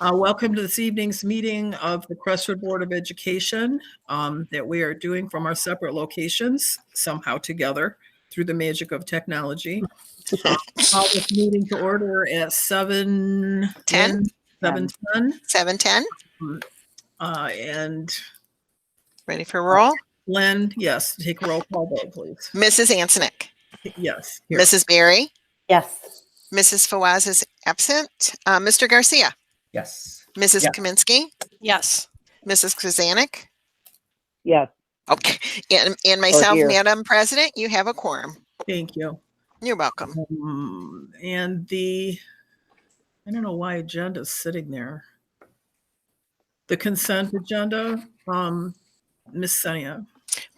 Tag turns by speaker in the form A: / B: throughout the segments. A: Uh, Welcome to this evening's meeting of the Crestwood Board of Education um, that we are doing from our separate locations, somehow together through the magic of technology. Uh, Call this meeting to order at seven.
B: Ten.
A: Seven ten,
B: Seven ten.
A: uh, and
B: Ready for roll?
A: Glenn, yes, take roll call vote, please.
B: Mrs. Antonik,
A: Yes. here.
B: Mrs. Berry,
C: Yes.
B: Mrs. Fawaz is absent. Uh, Mr. Garcia,
D: Yes.
B: Mrs.
D: Yeah.
B: Kaminsky,
E: Yes.
B: Mrs. Krasanik.
C: Yes.
B: Okay, and, and myself,
C: dear.
B: Madam President, you have a quorum.
A: Thank you.
B: You're welcome.
A: Um, and the, I don't know why agenda's sitting there. The consent agenda, um, Ms. Senia,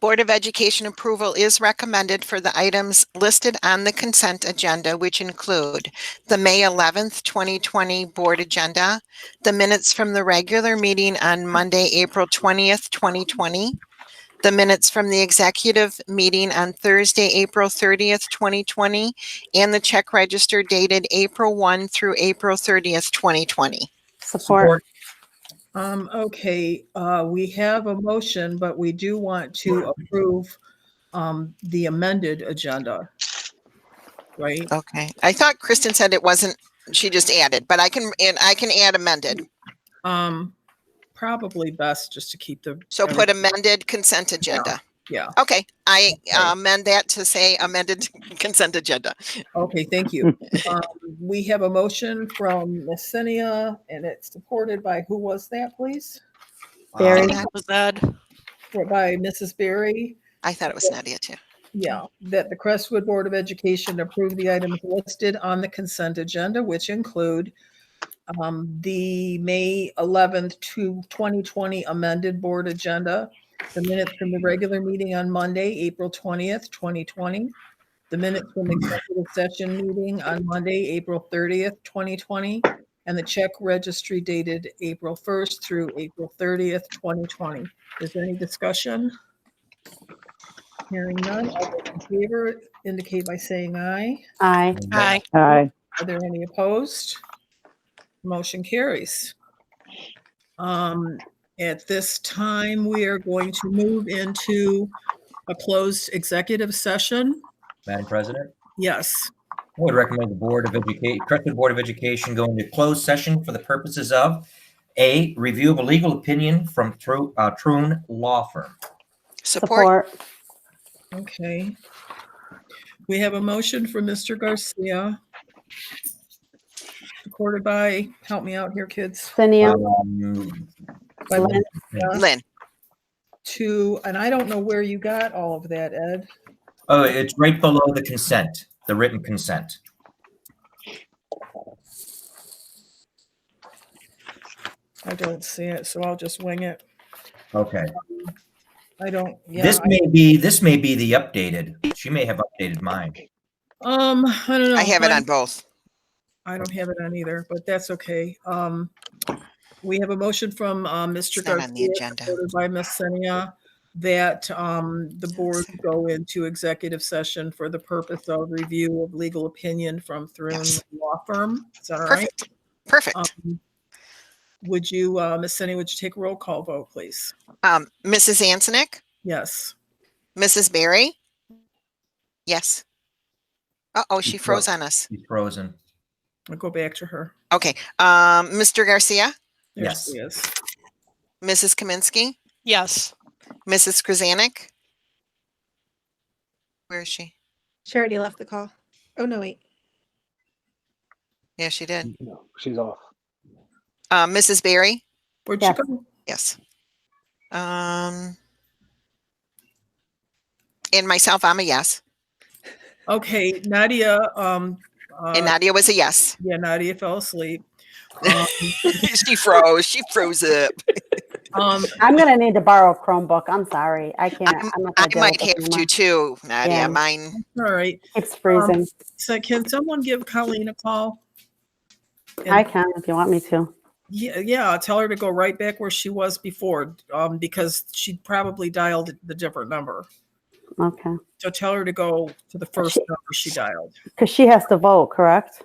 B: Board of Education approval is recommended for the items listed on the consent agenda, which include the May 11th, 2020 Board Agenda, the minutes from the regular meeting on Monday, April 20th, 2020, the minutes from the executive meeting on Thursday, April 30th, 2020, and the check register dated April 1 through April 30th, 2020.
C: Support.
A: um, okay, uh, we have a motion, but we do want to approve, um, the amended agenda. Right?
B: Okay. I thought Kristen said it wasn't, she just added, but I can, and I can add amended.
A: Um, probably best just to keep the.
B: So put amended consent agenda.
A: Yeah,
B: Okay, I amend that to say amended consent agenda.
A: okay, thank you. Um, We have a motion from Ms. Senia and it's supported by, who was that, please?
C: Barry.
B: Uh,
E: Was that?
A: by Mrs. Berry.
B: I thought it was Nadia too.
A: Yeah, that the Crestwood Board of Education approve the items listed on the consent agenda, which include um, the May 11th to 2020 amended board agenda, the minutes from the regular meeting on Monday, April 20th, 2020, the minutes from executive session meeting on Monday, April 30th, 2020, and the check registry dated April 1st through April 30th, 2020. Is there any discussion? Hearing none, all those in favor indicate by saying aye.
C: Aye.
E: Aye.
C: Aye.
A: Are there any opposed? Motion carries. Um, At this time, we are going to move into a closed executive session.
D: Madam President,
A: Yes,
D: I would recommend the Board of Education, Crestwood Board of Education go into closed session for the purposes of A, review of a legal opinion from Tru- uh, Trune Law Firm.
B: Support,
C: Support.
A: okay. We have a motion from Mr. Garcia. Supported by, help me out here, kids.
C: Cynthia.
D: Um,
A: by
C: Lynn.
B: Lynn.
A: To, and I don't know where you got all of that, Ed.
D: Oh, it's right below the consent, the written consent.
A: I don't see it, so I'll just wing it.
D: Okay.
A: I don't, yeah.
D: This may be, this may be the updated. She may have updated mine.
A: Um, I don't know.
B: I have it
A: Mine-
B: on both.
A: I don't have it on either, but that's okay. Um, we have a motion from, uh, Mr.
B: It's not on the
A: Garcia,
B: agenda.
A: supported by Ms. Senia, that, um, the board go into executive session for the purpose of review of legal opinion from Thrun
B: Yes.
A: Law Firm. Is that all right?
B: Perfect, perfect.
A: Um, Would you, uh, Ms. Senia, would you take a roll call vote, please?
B: Um, Mrs. Antonik,
A: Yes.
B: Mrs. Berry? Yes. Uh-oh, she
D: You fro-
B: froze on us.
D: She's frozen.
A: I'll go back to her.
B: Okay, um, Mr. Garcia,
A: There
D: Yes.
A: she is.
B: Mrs. Kaminsky,
E: Yes.
B: Mrs. Krasanik? Where is she?
F: Charity left the call. Oh, no, wait.
B: Yeah, she did.
A: Mm.
G: No, she's off.
B: Uh, Mrs. Berry?
A: Where'd she
C: Yes.
A: go?
B: Yes. Um, and myself, I'm a yes.
A: Okay, Nadia, um, uh,
B: And Nadia was a yes.
A: yeah, Nadia fell asleep. Um,
B: she froze. She froze up.
A: Um,
C: I'm gonna need to borrow a Chromebook. I'm sorry. I can't.
B: I'm-
C: I'm not
B: I
C: gonna deal with
B: might
C: this
B: have to
C: anymore.
B: too, Nadia.
C: Yeah.
B: Mine.
A: all right.
C: It's freezing.
A: So can someone give Colleen a call?
C: I can if you want me to.
A: Yeah, yeah, tell her to go right back where she was before, um, because she probably dialed the different number.
C: Okay.
A: So tell her to go to the first number she dialed.
C: Because she has to vote, correct?